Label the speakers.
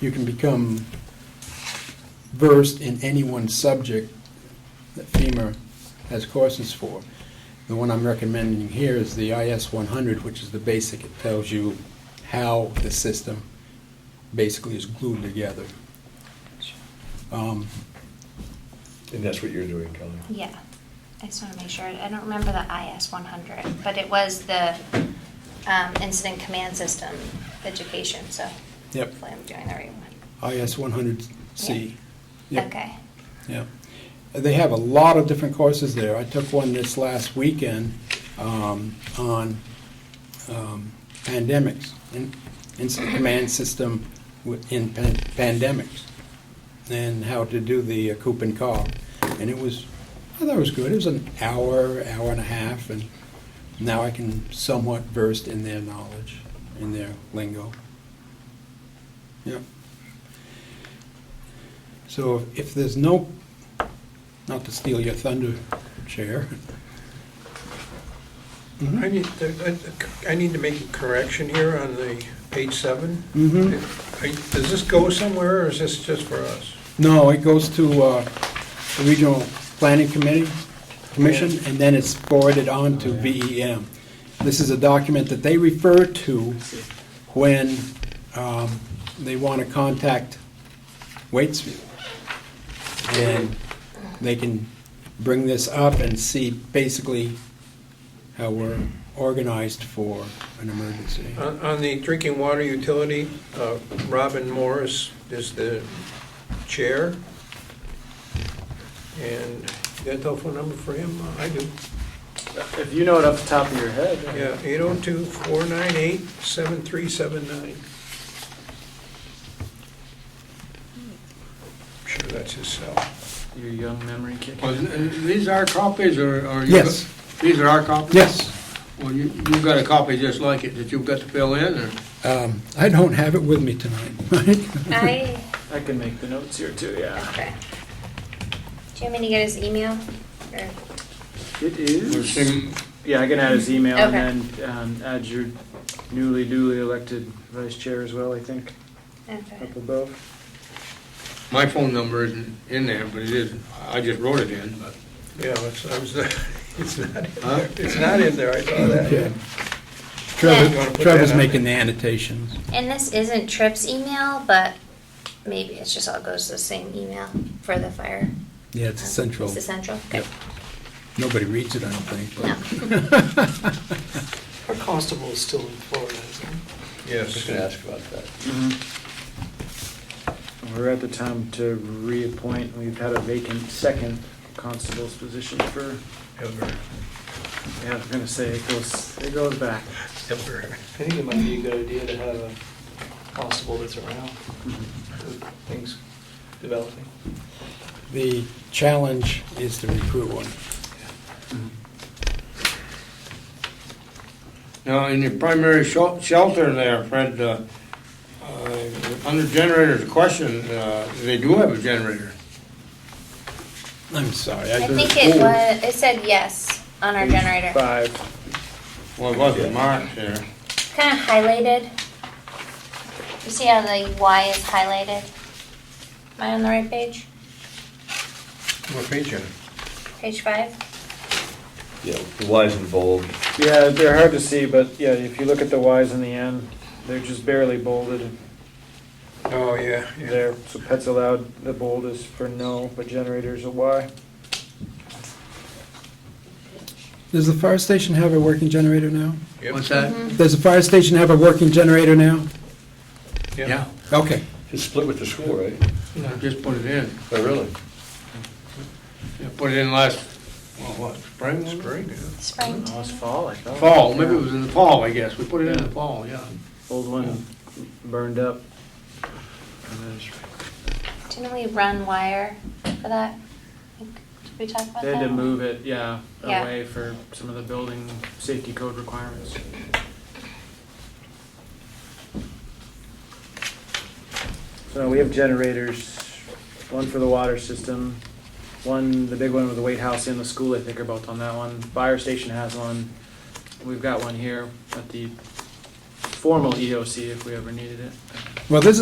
Speaker 1: you can become versed in any one subject that FEMA has courses for. The one I'm recommending here is the IS 100, which is the basic. It tells you how the system basically is glued together. Um,
Speaker 2: And that's what you're doing, Kelly?
Speaker 3: Yeah, I just want to make sure, I don't remember the IS 100, but it was the um, Incident Command System education, so.
Speaker 1: Yep.
Speaker 3: Hopefully I'm doing the right one.
Speaker 1: IS 100C. Yep.
Speaker 3: Okay,
Speaker 1: Yeah. They have a lot of different courses there. I took one this last weekend um, on um, pandemics, in- incident command system wi- in pan- pandemics, and how to do the uh, coop and call. And it was, I thought it was good. It was an hour, hour and a half, and now I can somewhat versed in their knowledge, in their lingo. Yeah. So if there's no, not to steal your thunder, Chair.
Speaker 4: I need, to- I I need to make a correction here on the page seven.
Speaker 1: Mhm.
Speaker 4: I- Does this go somewhere, or is this just for us?
Speaker 1: No, it goes to uh, the Regional Planning Committee, Commission, and then it's forwarded on to VEM. This is a document that they refer to when um, they want to contact Waitsfield. And they can bring this up and see basically how we're organized for an emergency.
Speaker 4: On on the drinking water utility, uh, Robin Morris is the chair. And you got a telephone number for him? Uh, I do.
Speaker 5: If you know it off the top of your head. I-
Speaker 4: Yeah, 802-498-7379. Sure, that's his cell.
Speaker 5: Your young memory kicking.
Speaker 6: Well, th- th- These are copies, or? or you
Speaker 1: Yes.
Speaker 6: got- These are our copies?
Speaker 1: Yes?
Speaker 6: Well, you- you've got a copy just like it that you've got to fill in, or?
Speaker 1: Um, I don't have it with me tonight, right?
Speaker 3: I,
Speaker 5: I can make the notes here too, yeah.
Speaker 3: okay. Do you want me to get his email? Or-
Speaker 5: It
Speaker 6: or
Speaker 5: is,
Speaker 6: sing-
Speaker 5: yeah, I can add his email and
Speaker 3: Okay.
Speaker 5: then um, add your newly duly elected vice chair as well, I think,
Speaker 3: Okay.
Speaker 5: up above.
Speaker 6: My phone number isn't in there, but it is, I just wrote it in, but.
Speaker 4: Yeah, it's, I was, it's not, in
Speaker 6: Huh?
Speaker 4: there. it's not in there, I saw that.
Speaker 3: Yeah. You
Speaker 1: Trevor,
Speaker 4: wanna put
Speaker 1: Trevor's
Speaker 4: that on
Speaker 1: making the annotations.
Speaker 3: And this isn't Tripp's email, but maybe it's just all goes to the same email for the fire.
Speaker 1: Yeah, it's central.
Speaker 3: It's the central, okay.
Speaker 1: Nobody reads it, I don't
Speaker 3: No.
Speaker 1: think.
Speaker 7: Our constable is still in Florida, isn't he?
Speaker 2: Just
Speaker 4: Yes.
Speaker 2: gonna ask about that.
Speaker 5: Mm-hmm. We're at the time to reappoint, we've had a vacant second constable's position for,
Speaker 4: Ever,
Speaker 5: yeah, I was gonna say, it goes, it goes back.
Speaker 4: ever.
Speaker 7: I think it might be a good idea to have a constable that's around, with things developing.
Speaker 1: The challenge is to recruit one.
Speaker 6: Now, in your primary shel- shelter there, Fred, uh, uh, under generators question, uh, they do have a generator.
Speaker 1: I'm sorry.
Speaker 3: I
Speaker 1: did-
Speaker 3: think it was, it said yes on our generator.
Speaker 5: Five.
Speaker 6: Well, it wasn't marked there.
Speaker 3: kind of highlighted. You see how the Y is highlighted? Am I on the right page?
Speaker 4: What page are you
Speaker 3: Page five?
Speaker 2: Yeah, the wise and bold.
Speaker 5: Yeah, they're hard to see, but yeah, if you look at the Ys and the N, they're just barely bolded
Speaker 4: on? Oh, yeah, yeah.
Speaker 5: there. So pets allowed, the bold is for no, but generators a Y.
Speaker 1: Does the fire station have a working generator now?
Speaker 4: Yep. Mm-hmm.
Speaker 6: What's that?
Speaker 1: Does the fire station have a working generator now?
Speaker 6: Yeah,
Speaker 1: Okay.
Speaker 2: It's split with the school, right?
Speaker 6: I just put it in.
Speaker 2: Oh, really?
Speaker 6: I Put it in last, well, what, spring? was it?
Speaker 4: Spring, yeah.
Speaker 3: Spring.
Speaker 5: Oh, it's fall, I thought.
Speaker 6: Fall, maybe it was in the fall, I guess. We put it in the
Speaker 5: Yeah.
Speaker 6: fall, yeah.
Speaker 5: Old one burned up. And then it's-
Speaker 3: Didn't we run wire for that? Did we talk about
Speaker 5: They
Speaker 3: that?
Speaker 5: had to move it, yeah,
Speaker 3: Yeah.
Speaker 5: away for some of the building safety code requirements. So we have generators, one for the water system, one, the big one with the weight house and the school, I think are both on that one. Fire station has one. We've got one here at the formal EOC E if we ever needed it.
Speaker 1: Well, this